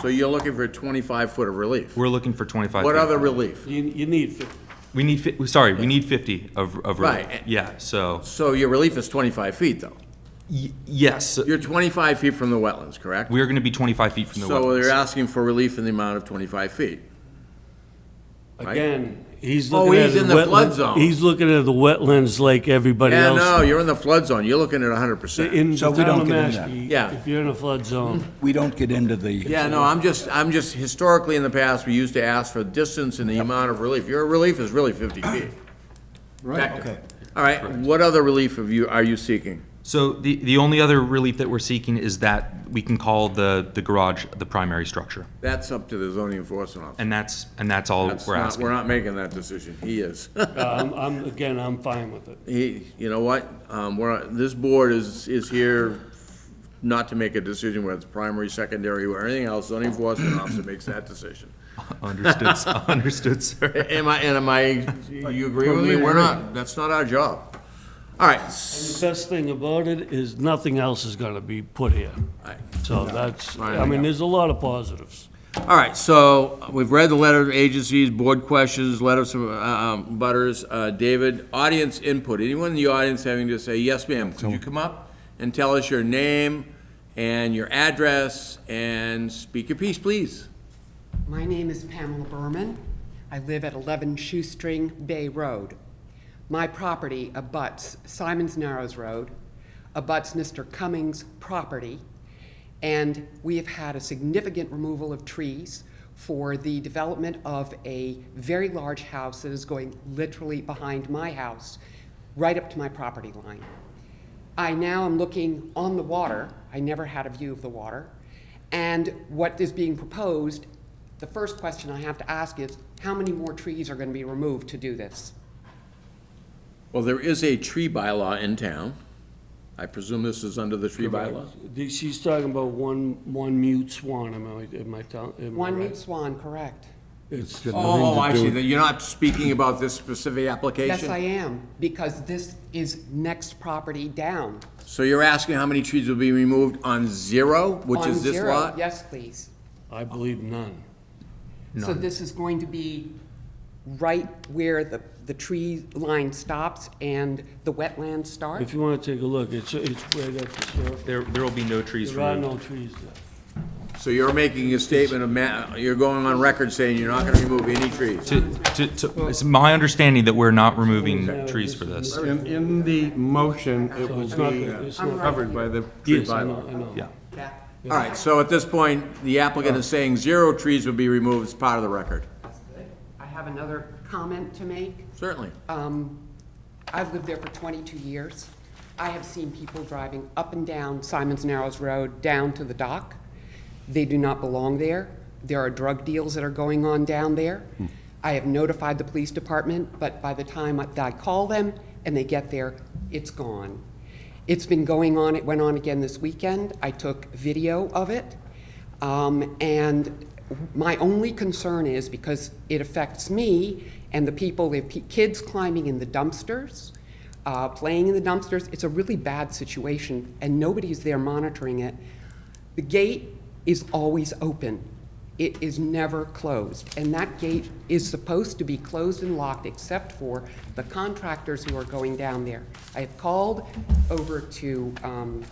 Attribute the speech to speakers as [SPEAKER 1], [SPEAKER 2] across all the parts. [SPEAKER 1] So you're looking for twenty-five foot of relief?
[SPEAKER 2] We're looking for 25.
[SPEAKER 1] What
[SPEAKER 2] feet.
[SPEAKER 1] other relief?
[SPEAKER 3] You, you need fifty.
[SPEAKER 2] We need, fi- we- sorry, we need 50 of, of relief.
[SPEAKER 1] Right.
[SPEAKER 2] Yeah, so,
[SPEAKER 1] So your relief is twenty-five feet, though?
[SPEAKER 2] y- yes,
[SPEAKER 1] You're twenty-five feet from the wetlands, correct?
[SPEAKER 2] we are going to be 25 feet from the
[SPEAKER 1] So they're
[SPEAKER 2] wetlands.
[SPEAKER 1] asking for relief in the amount of twenty-five feet.
[SPEAKER 3] Again, he's
[SPEAKER 1] Oh,
[SPEAKER 3] looking at
[SPEAKER 1] he's
[SPEAKER 3] the
[SPEAKER 1] in the flood
[SPEAKER 3] wetland-
[SPEAKER 1] zone.
[SPEAKER 3] He's looking at the wetlands like everybody
[SPEAKER 1] Yeah,
[SPEAKER 3] else.
[SPEAKER 1] no, you're in the flood zone, you're looking at hundred percent.
[SPEAKER 3] In the
[SPEAKER 4] So we
[SPEAKER 3] town of
[SPEAKER 4] don't get into that.
[SPEAKER 3] Mashpee,
[SPEAKER 1] Yeah.
[SPEAKER 3] if you're in a flood zone,
[SPEAKER 4] We don't get into the.
[SPEAKER 1] Yeah, no, I'm just, I'm just, historically in the past, we used to ask for distance and the amount of relief. Your relief is really fifty feet.
[SPEAKER 4] Right,
[SPEAKER 1] Back to-
[SPEAKER 4] okay.
[SPEAKER 1] All right, what other relief have you, are you seeking?
[SPEAKER 2] So the, the only other relief that we're seeking is that we can call the, the garage the primary structure.
[SPEAKER 1] That's up to the zoning enforcement officer.
[SPEAKER 2] And that's, and that's all
[SPEAKER 1] That's
[SPEAKER 2] we're
[SPEAKER 1] not- We're
[SPEAKER 2] asking.
[SPEAKER 1] not making that decision, he is.
[SPEAKER 3] uh, I'm, I'm, again, I'm fine with it.
[SPEAKER 1] He, you know what, um, we're, this board is, is here not to make a decision whether it's primary, secondary, or anything else. Zoning enforcement officer makes that decision.
[SPEAKER 2] Understood, sir. understood, sir.
[SPEAKER 1] Am I, and am I, you agree with me? We're not, that's not our job. All right, s-
[SPEAKER 3] The best thing about it is nothing else is gonna be put here.
[SPEAKER 1] Right.
[SPEAKER 3] So that's,
[SPEAKER 1] Right.
[SPEAKER 3] I mean, there's a lot of positives.
[SPEAKER 1] all right, so we've read the letter of agencies, board questions, letters from, uh, um, butters, uh, David, audience input. Anyone in the audience having to say, yes, ma'am, could you come up and tell us your name and your address and speak your piece, please?
[SPEAKER 5] My name is Pamela Berman. I live at 11 Shoestring Bay Road. My property abuts Simons Narrows Road, abuts Mr. Cummings' property, and we have had a significant removal of trees for the development of a very large house that is going literally behind my house, right up to my property line. I now am looking on the water. I never had a view of the water. And what is being proposed, the first question I have to ask is, how many more trees are going to be removed to do this?
[SPEAKER 1] Well, there is a tree bylaw in town. I presume this is under the tree bylaw?
[SPEAKER 3] The- She's talking about one, one mute swan, am I, am I telling, am I
[SPEAKER 5] One
[SPEAKER 3] right?
[SPEAKER 5] mute swan, correct?
[SPEAKER 3] It's,
[SPEAKER 1] Oh, I see, you're not speaking about this specific application?
[SPEAKER 5] Yes, I am, because this is next property down.
[SPEAKER 1] So you're asking how many trees will be removed on zero, which
[SPEAKER 5] On
[SPEAKER 1] is this
[SPEAKER 5] zero.
[SPEAKER 1] lot?
[SPEAKER 5] Yes, please.
[SPEAKER 3] I believe none.
[SPEAKER 5] So this is going to be right where the, the tree line stops and the wetlands start?
[SPEAKER 3] If you wanna take a look, it's, it's right at the surface.
[SPEAKER 2] There, there will be no trees
[SPEAKER 3] There are
[SPEAKER 2] removed.
[SPEAKER 3] no trees there.
[SPEAKER 1] So you're making a statement of, ma- you're going on record saying you're not gonna remove any trees?
[SPEAKER 2] To, to, to, it's my understanding that we're not removing
[SPEAKER 3] No,
[SPEAKER 2] trees
[SPEAKER 3] this
[SPEAKER 2] for
[SPEAKER 3] is-
[SPEAKER 2] this.
[SPEAKER 6] In, in the motion, it will
[SPEAKER 3] It's not,
[SPEAKER 6] be
[SPEAKER 3] it's not.
[SPEAKER 6] covered by the tree
[SPEAKER 3] Yes, I know,
[SPEAKER 6] bylaw.
[SPEAKER 3] I know.
[SPEAKER 2] Yeah.
[SPEAKER 5] Yeah.
[SPEAKER 1] All right, so at this point, the applicant is saying zero trees will be removed as part of the record.
[SPEAKER 5] That's good. I have another comment to make.
[SPEAKER 1] Certainly.
[SPEAKER 5] Um, I've lived there for 22 years. I have seen people driving up and down Simon's Narrows Road, down to the dock. They do not belong there. There are drug deals that are going on down there. I have notified the police department, but by the time I- I call them and they get there, it's gone. It's been going on, it went on again this weekend. I took video of it. Um, and my only concern is because it affects me and the people, the pe- kids climbing in the dumpsters, uh, playing in the dumpsters, it's a really bad situation and nobody's there monitoring it. The gate is always open. It is never closed. And that gate is supposed to be closed and locked except for the contractors who are going down there. I have called over to, um,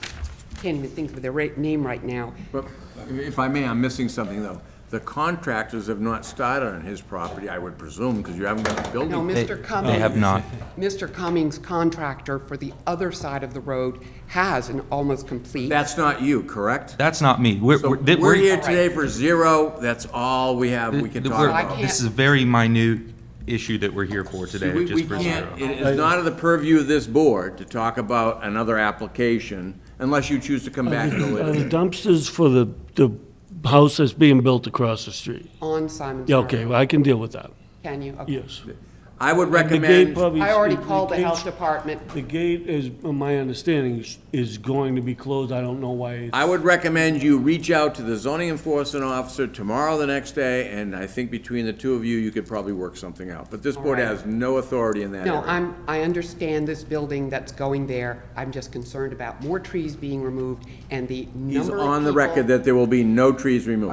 [SPEAKER 5] can't even think of their ra- name right now,
[SPEAKER 1] But if I may, I'm missing something, though. The contractors have not started on his property, I would presume, because you haven't got a building.
[SPEAKER 5] No,
[SPEAKER 2] They-
[SPEAKER 5] Mr. Cummings.
[SPEAKER 2] They have not.
[SPEAKER 5] Mr. Cummings' contractor for the other side of the road has an almost complete.
[SPEAKER 1] That's not you, correct?
[SPEAKER 2] That's not me. We're,
[SPEAKER 1] So
[SPEAKER 2] we're, that-
[SPEAKER 1] we're here
[SPEAKER 2] we're,
[SPEAKER 1] today for zero, that's all we have, we can
[SPEAKER 2] that
[SPEAKER 1] talk
[SPEAKER 2] we're-
[SPEAKER 1] about.
[SPEAKER 2] this is a very minute issue that we're here for today,
[SPEAKER 1] We-
[SPEAKER 2] just
[SPEAKER 1] we
[SPEAKER 2] for
[SPEAKER 1] can't-
[SPEAKER 2] zero.
[SPEAKER 1] It is not of the purview of this board to talk about another application unless you choose to come back to the
[SPEAKER 3] Are the
[SPEAKER 1] litigation.
[SPEAKER 3] dumpsters for the, the house that's being built across the street?
[SPEAKER 5] On Simon's.
[SPEAKER 3] Yeah, okay,
[SPEAKER 5] Road.
[SPEAKER 3] well, I can deal with that,
[SPEAKER 5] Can you? Okay.
[SPEAKER 3] yes.
[SPEAKER 1] I would
[SPEAKER 3] The gate
[SPEAKER 1] recommend,
[SPEAKER 3] probably-
[SPEAKER 5] I already called the
[SPEAKER 3] gate's-
[SPEAKER 5] health department.
[SPEAKER 3] The gate is, my understanding, is- is going to be closed, I don't know why. it's-
[SPEAKER 1] I would recommend you reach out to the zoning enforcement officer tomorrow, the next day, and I think between the two of you, you could probably work something out. But this board has no authority in that
[SPEAKER 5] No,
[SPEAKER 1] area.
[SPEAKER 5] I'm, I understand this building that's going there. I'm just concerned about more trees being removed and the number of
[SPEAKER 1] He's
[SPEAKER 5] people.
[SPEAKER 1] on the record that there will be no trees removed.